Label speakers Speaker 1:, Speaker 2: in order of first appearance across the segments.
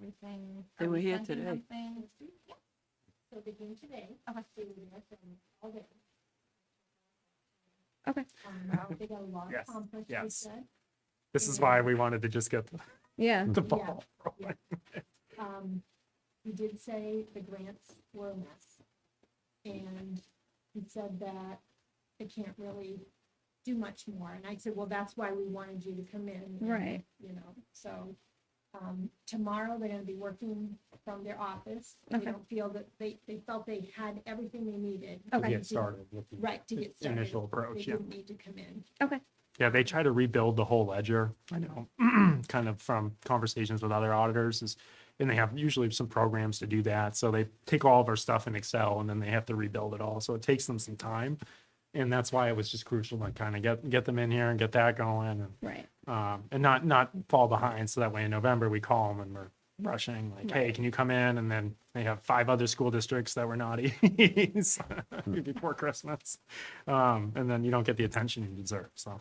Speaker 1: something?
Speaker 2: They
Speaker 1: Are
Speaker 2: were
Speaker 1: we
Speaker 2: here
Speaker 1: thinking
Speaker 2: today.
Speaker 1: something?
Speaker 3: So begin today.
Speaker 1: Okay.
Speaker 3: They were there from all day.
Speaker 1: Okay.
Speaker 3: Um, They got a lot
Speaker 4: Yes,
Speaker 3: accomplished, we
Speaker 4: yes.
Speaker 3: said.
Speaker 4: This is why we wanted to just get the-
Speaker 1: Yeah,
Speaker 4: the
Speaker 3: Yeah.
Speaker 4: ball rolling.
Speaker 3: Um, He did say the grants were a mess. And he said that they can't really do much more. And I said, well, that's why we wanted you to come in. and,
Speaker 1: Right.
Speaker 3: You know, so, um, tomorrow they're gonna be working from their office. They
Speaker 1: Okay.
Speaker 3: don't feel that, they, they felt they had everything they needed.
Speaker 4: To
Speaker 1: Okay.
Speaker 4: get started with the
Speaker 3: Right, to get started.
Speaker 4: Initial
Speaker 3: They
Speaker 4: approach, yeah.
Speaker 3: didn't need to come in.
Speaker 1: okay,
Speaker 4: Yeah, they try to rebuild the whole ledger. I know, kind of from conversations with other auditors is, and they have usually some programs to do that. So they take all of our stuff in Excel and then they have to rebuild it all. So it takes them some time. And that's why it was just crucial to kind of get, get them in here and get that going and,
Speaker 1: right.
Speaker 4: um, and not, not fall behind. So that way in November, we call them and we're rushing like, hey, can you come in? And then they have five other school districts that were naughty
Speaker 3: Hmm.
Speaker 4: before Christmas. Um, and then you don't get the attention you deserve. So,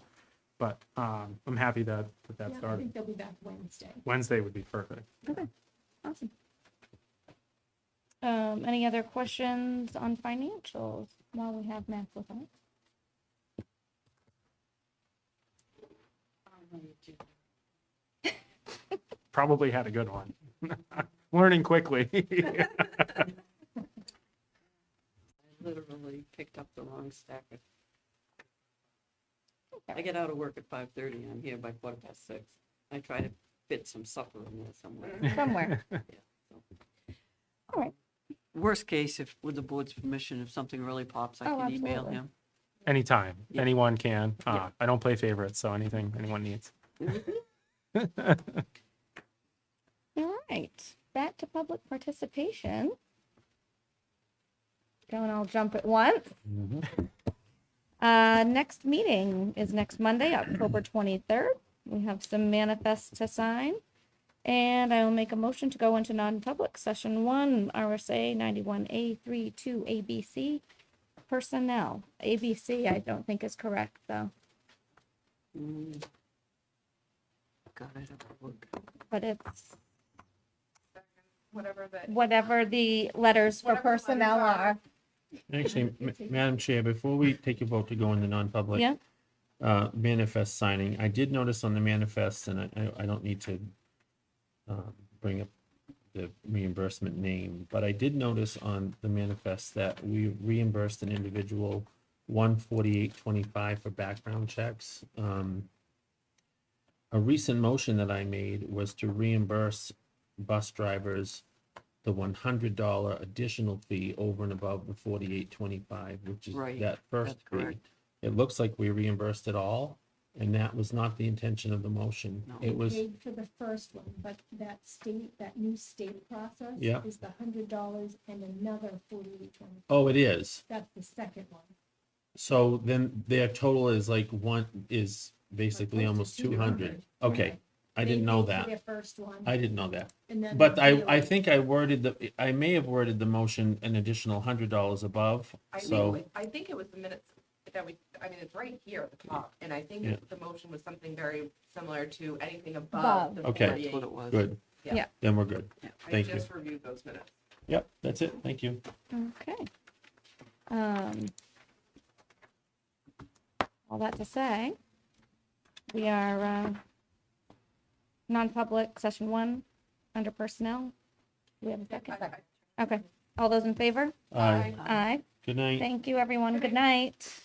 Speaker 4: but, um, I'm happy that, that that
Speaker 3: Yeah, I
Speaker 4: started.
Speaker 3: think they'll be back Wednesday.
Speaker 4: Wednesday would be perfect.
Speaker 1: Awesome. Um, any other questions on financials while we have Max with us?
Speaker 4: Probably had a good one. Learning quickly.
Speaker 5: I literally picked up the wrong stack. of- I get out of work at five thirty, I'm here by quarter past six. I try to fit some supper in there somewhere.
Speaker 1: Somewhere.
Speaker 5: Worst case, if, with the board's permission, if something really pops, I
Speaker 1: Oh,
Speaker 5: can email
Speaker 1: absolutely.
Speaker 5: him.
Speaker 4: Anytime,
Speaker 5: Yeah.
Speaker 4: anyone can. Uh,
Speaker 5: Yeah.
Speaker 4: I don't play favorites, so anything anyone needs.
Speaker 1: All right, back to public participation. Don't all jump at once. Uh, next meeting is next Monday, October twenty-third. We have some manifests to sign. And I will make a motion to go into non-public session one, RSA ninety-one A three two ABC. Personnel, ABC I don't think is correct though,
Speaker 5: Mm. God, I don't work.
Speaker 1: but it's
Speaker 6: whatever that.
Speaker 1: whatever the letters for
Speaker 6: Whatever the letters
Speaker 1: personnel
Speaker 6: are.
Speaker 1: are.
Speaker 7: Actually, Ma- Madam Chair, before we take a vote to go into non-public.
Speaker 1: Yeah.
Speaker 7: Uh, manifest signing, I did notice on the manifest, and I, I- I don't need to uh, bring up the reimbursement name, but I did notice on the manifest that we reimbursed an individual one forty-eight twenty-five for background checks. Um, A recent motion that I made was to reimburse bus drivers the one hundred dollar additional fee over and above the forty-eight twenty-five, which is
Speaker 5: Right,
Speaker 7: that first
Speaker 5: That's
Speaker 7: fee.
Speaker 5: correct.
Speaker 7: It looks like we reimbursed it all, and that was not the intention of the motion.
Speaker 5: No.
Speaker 7: It was,
Speaker 3: Paid for the first one, but that state, that new state process
Speaker 7: Yeah.
Speaker 3: is the hundred dollars and another forty-eight twenty.
Speaker 7: oh, it is.
Speaker 3: That's the second one.
Speaker 7: So then their total is like one, is basically
Speaker 3: Opposed to
Speaker 7: almost two hundred.
Speaker 3: 200.
Speaker 7: Okay, I didn't know
Speaker 3: They paid for
Speaker 7: that.
Speaker 3: Their first one.
Speaker 7: I didn't know that.
Speaker 3: and then
Speaker 7: But I,
Speaker 3: the
Speaker 7: I
Speaker 3: other-
Speaker 7: think I worded the, I may have worded the motion an additional hundred dollars above,
Speaker 6: I think, it
Speaker 7: so.
Speaker 6: was- I think it was the minutes that we, I mean, it's right here at the top, and I
Speaker 7: Yeah.
Speaker 6: think the motion was something very similar to anything
Speaker 1: Above.
Speaker 6: above the
Speaker 7: Okay.
Speaker 5: That's what
Speaker 6: forty-eight.
Speaker 5: it was.
Speaker 7: Good.
Speaker 6: Yeah.
Speaker 1: Yeah.
Speaker 7: Then we're good.
Speaker 6: I
Speaker 7: Thank you.
Speaker 6: just reviewed those minutes.
Speaker 7: Yep, that's it. Thank you.
Speaker 1: Okay. Um, all that to say, we are, uh, non-public session one, under personnel. Do we have a second?
Speaker 6: I- I-
Speaker 1: Okay. All those in favor?
Speaker 7: Aye.
Speaker 1: Aye.
Speaker 7: Good night.
Speaker 1: Thank you, everyone. Good night.